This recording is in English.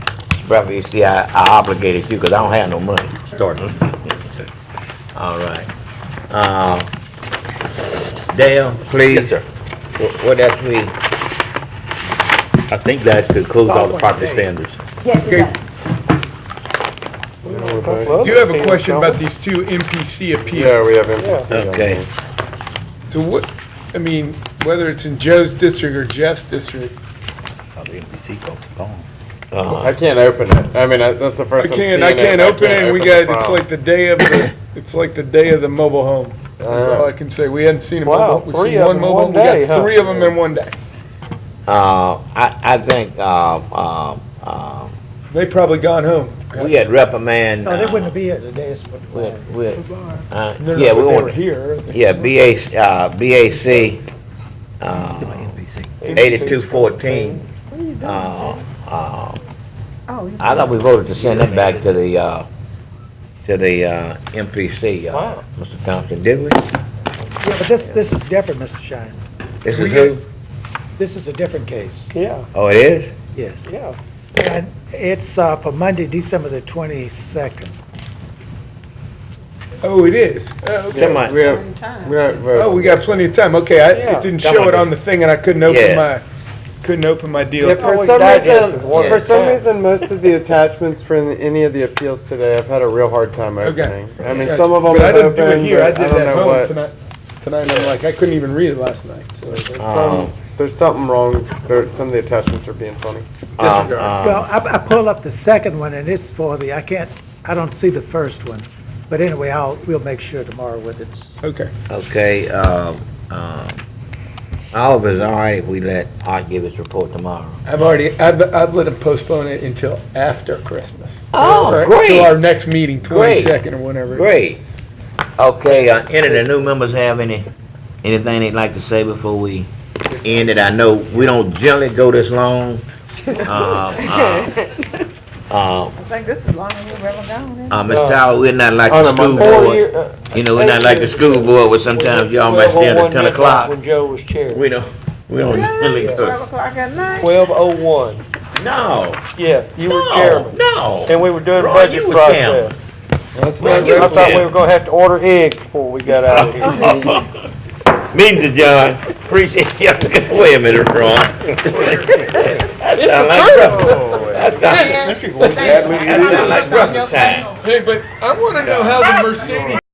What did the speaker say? Bradford, you see, I, I obligated you, cause I don't have no money. Sorry. All right. Uh, Dale, Yes, please. sir. Wh- What else we, I think that concludes all the property standards. Yes, it does. Do you have a question about these two MPC appeals? Yeah, we have MPC. on okay, there. So what, I mean, whether it's in Joe's district or Jeff's district, Oh, the NPC folks are gone. Uh, I can't open it. I mean, I- that's the I first time seeing can't, it. I can't open it, and we the got, it's file. like the day of the, it's like the day of the mobile home. That's all I can say. We hadn't seen a Wow, mobile, we've three seen of one them in mobile, one we day, huh? got three of them in one day. uh, I, I think, uh, uh, uh, They probably gone home. we had reprimand. No, they uh, wouldn't be here today, it's what. We, we, uh, No, no, yeah, but we they were want, here. yeah, BA, uh, BAC, uh, eighty-two fourteen. Uh, uh, Oh, you- I thought we voted to send it back to the, uh, to the, uh, MPC, uh, Mr. Thompson, did we? Yeah, but this, this is different, Mr. Shine. This is who? This is a different case, Yeah, Oh, it is? yes. yeah. And it's uh, for Monday, December the 22nd. Oh, it is. Oh, okay. Come on. We have, we have, Oh, uh, we got plenty of time. Okay, I, Yeah. it didn't Come show on, it on the thing, and I couldn't open Yeah. my, couldn't open my deal. yeah, for we some died yesterday. reason, One for some percent. reason, most of the attachments for any of the appeals today, I've had a real hard time Okay. opening. I mean, Gotcha. some of them But I have didn't opened, do but it here. I I did don't that at know home what. tonight. Tonight, I'm like, I couldn't even read it last night, so. Ah. Uh, Some, there's something wrong. There, some of the attachments are being funny. Uh, uh, Disregard. Well, I, I pulled up the second one, and it's for the, I can't, I don't see the first one. But anyway, I'll, we'll make sure tomorrow with it. Okay. Okay, um, um, Oliver's all right if we let Art give his report tomorrow. I've already, I've, I've let him postpone it until after Christmas. Oh, Or great. Till our next meeting, Great. twenty-second or whenever. Great. Okay, uh, any of the new members have any, anything they'd like to say before we end it? I know we don't generally go this long. Uh, uh, uh, I think this is longer than we've ever gone. isn't it? uh, Ms. Tyler, we're not like On the a school Monday. Four year, board. uh, You know, we're not like the school board where sometimes y'all might twelve oh stand one at ten midnight o'clock. When Joe was chair. We don't, we don't generally Yeah, Twelve go. o'clock at night. Twelve oh one, No, yes, you were no, chairman. And no. we were doing Roy, budget you were chairman. process. That's Well, not you- I reputable. thought we were gonna have to order eggs before we got out of Uh-huh. here. Oh, Means it, John. Appreciate you. Wait a minute, Ron. That sound like breakfast. That sound- that sound like breakfast time. Ah. Hey, but I wanna know how the Mercedes